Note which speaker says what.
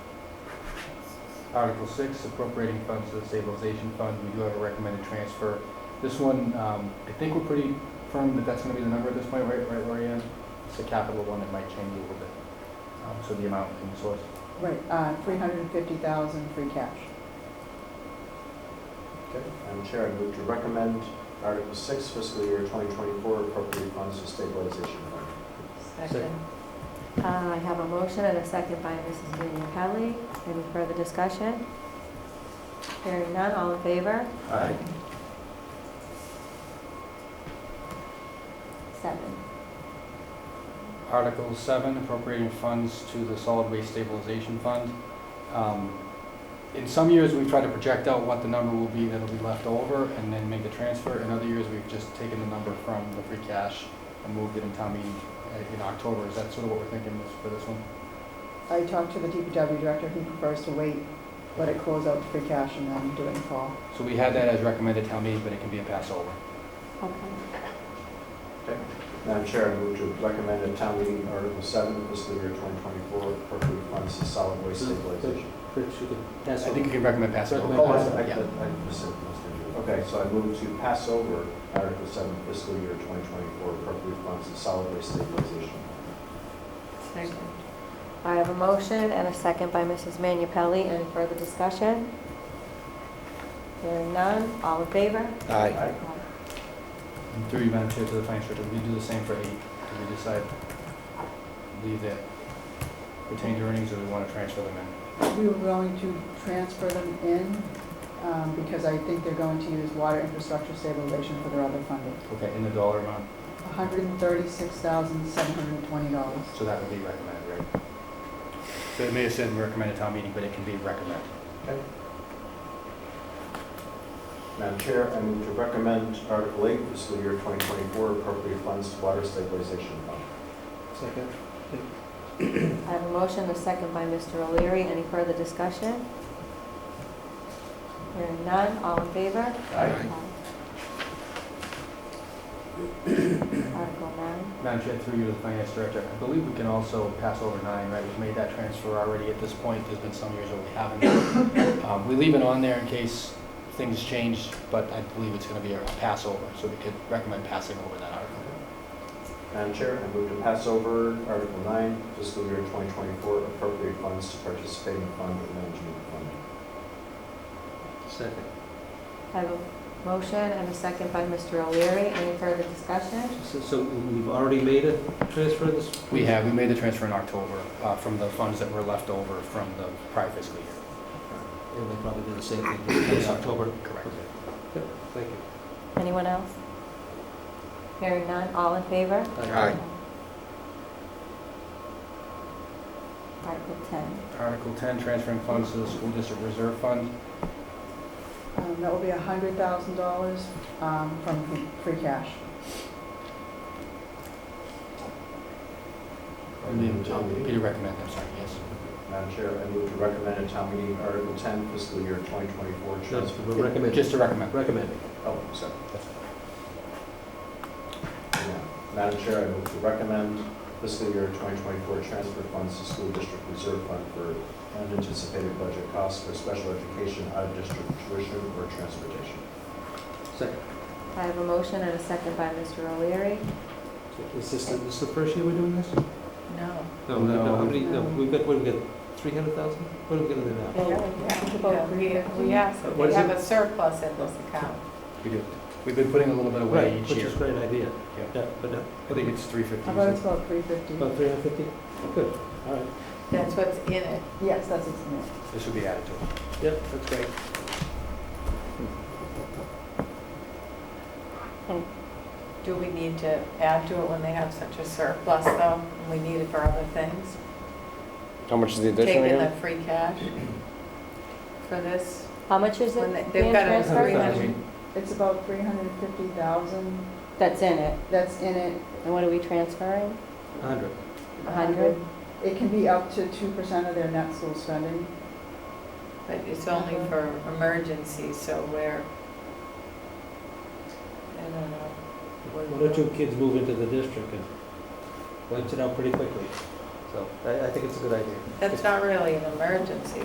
Speaker 1: Article six, appropriating funds to the stabilization fund, we do have a recommended transfer. This one, um, I think we're pretty firm that that's gonna be the number at this point, right, right, Lorianne? It's a capital one, it might change a little bit, um, so the amount and source.
Speaker 2: Right, uh, 350,000 free cash.
Speaker 3: Okay, Madam Chair, I move to recommend Article 6, fiscal year 2024, appropriate funds to stabilization fund.
Speaker 1: Second.
Speaker 4: Uh, I have a motion and a second by Mrs. Manu Pelli. Any further discussion? Hearing none, all in favor?
Speaker 3: Aye.
Speaker 4: Seven.
Speaker 1: Article seven, appropriating funds to the solid waste stabilization fund. Um, In some years, we've tried to project out what the number will be that'll be left over and then make the transfer. In other years, we've just taken the number from the free cash and moved it in town meeting uh, in October. Is that sort of what we're thinking is for this one?
Speaker 2: I talked to the DPW director, he prefers to wait, let it close out the free cash and then do it in fall.
Speaker 1: So we had that as recommended town meeting, but it can be a pass over.
Speaker 4: Okay.
Speaker 3: Madam Chair, I move to recommend at town meeting Article 7, fiscal year 2024, appropriate funds to solid waste stabilization.
Speaker 1: I think you can recommend pass over.
Speaker 3: Oh, I I-
Speaker 1: Yeah.
Speaker 3: I missed it, Mr. Chair. Okay, so I move to pass over Article 7, fiscal year 2024, appropriate funds to solid waste stabilization.
Speaker 4: Second. I have a motion and a second by Mrs. Manu Pelli. Any further discussion? Hearing none, all in favor?
Speaker 5: Aye.
Speaker 3: Aye.
Speaker 1: And Through you, Madam Chair, to the finance director, we do the same for eight. Do we decide leave that retained earnings or we want to transfer them in?
Speaker 2: We were going to transfer them in um, because I think they're going to use water infrastructure stabilization for their other funding.
Speaker 1: Okay, in the dollar amount,
Speaker 2: $136,720.
Speaker 1: so that would be recommended, right? So it may have said recommended town meeting, but it can be recommended.
Speaker 3: Madam Chair, I move to recommend Article 8, fiscal year 2024, appropriate funds to water stabilization fund.
Speaker 5: Second.
Speaker 4: I have a motion and a second by Mr. O'Leary. Any further discussion? Hearing none, all in favor?
Speaker 3: Aye.
Speaker 4: Article nine.
Speaker 1: Madam Chair, through you to the finance director, I believe we can also pass over nine, right? We've made that transfer already at this point, there's been some years where we haven't. Um, We leave it on there in case things change, but I believe it's going to be a pass over, so we could recommend passing over that article.
Speaker 3: Madam Chair, I move to pass over Article 9, fiscal year 2024, appropriate funds to participating fund and management fund.
Speaker 5: Second.
Speaker 4: I have a motion and a second by Mr. O'Leary. Any further discussion?
Speaker 5: So- So we've already made a transfer this?
Speaker 1: We have, we made the transfer in October uh, from the funds that were left over from the prior fiscal year.
Speaker 5: And they probably do the same thing this October.
Speaker 1: Correct.
Speaker 5: Yep, Thank you.
Speaker 4: Anyone else? Hearing none, all in favor?
Speaker 5: Aye.
Speaker 4: Article 10.
Speaker 1: Article 10, transferring funds to the school district reserve fund.
Speaker 2: Um, That will be $100,000 um, from free- free cash.
Speaker 1: Peter Peter uh, recommend, I'm sorry, yes.
Speaker 3: Madam Chair, I move to recommend at town meeting Article 10, fiscal year 2024,
Speaker 5: Just
Speaker 3: transfer.
Speaker 5: recommend.
Speaker 1: Just to recommend.
Speaker 5: Recommend.
Speaker 3: Oh, sorry. Yeah. Madam Chair, I move to recommend fiscal year 2024 transfer funds to school district reserve fund for unanticipated budget costs for special education, out-of-district tuition, or transportation.
Speaker 5: Second.
Speaker 4: I have a motion and a second by Mr. O'Leary.
Speaker 5: Is this, the- this the first year we're doing this?
Speaker 2: No.
Speaker 5: No, we- no, how
Speaker 1: No.
Speaker 5: many, no, we've got, what, we've got 300,000? What are we getting there
Speaker 6: Oh,
Speaker 4: Oh,
Speaker 5: now?
Speaker 4: Yeah, we- we
Speaker 2: asked,
Speaker 5: if What they is have it?
Speaker 2: a surplus in this account.
Speaker 1: We do. We've been putting a little bit
Speaker 5: Right,
Speaker 1: away each
Speaker 5: which
Speaker 1: year.
Speaker 5: is a great idea.
Speaker 1: Yeah.
Speaker 5: Yeah, but uh,
Speaker 1: I think it's
Speaker 2: I thought it's
Speaker 1: 350.
Speaker 2: about 350.
Speaker 5: about 350? Good, all right.
Speaker 2: That's what's in it. Yes, that's what's in it.
Speaker 1: This would be added to it.
Speaker 5: Yep, that's great.
Speaker 6: Do we need to add to it when they have such a surplus, though? and We need it for other things?
Speaker 7: How much is the addition
Speaker 6: Taking the
Speaker 7: again?
Speaker 6: free cash for this?
Speaker 4: How much is
Speaker 6: When they-
Speaker 4: it
Speaker 6: they've
Speaker 4: being
Speaker 6: got a
Speaker 4: transferred?
Speaker 6: three hundred-
Speaker 2: It's about 350,000
Speaker 4: That's in it.
Speaker 2: that's in it.
Speaker 4: And what are we transferring?
Speaker 5: 100.
Speaker 4: A hundred?
Speaker 2: It can be up to 2% of their net school spending.
Speaker 6: But it's only for emergencies, so we're, I don't know.
Speaker 5: One or two kids move into the district and wipes it out pretty quickly. So I, I think it's a good idea.
Speaker 6: That's not really an emergency,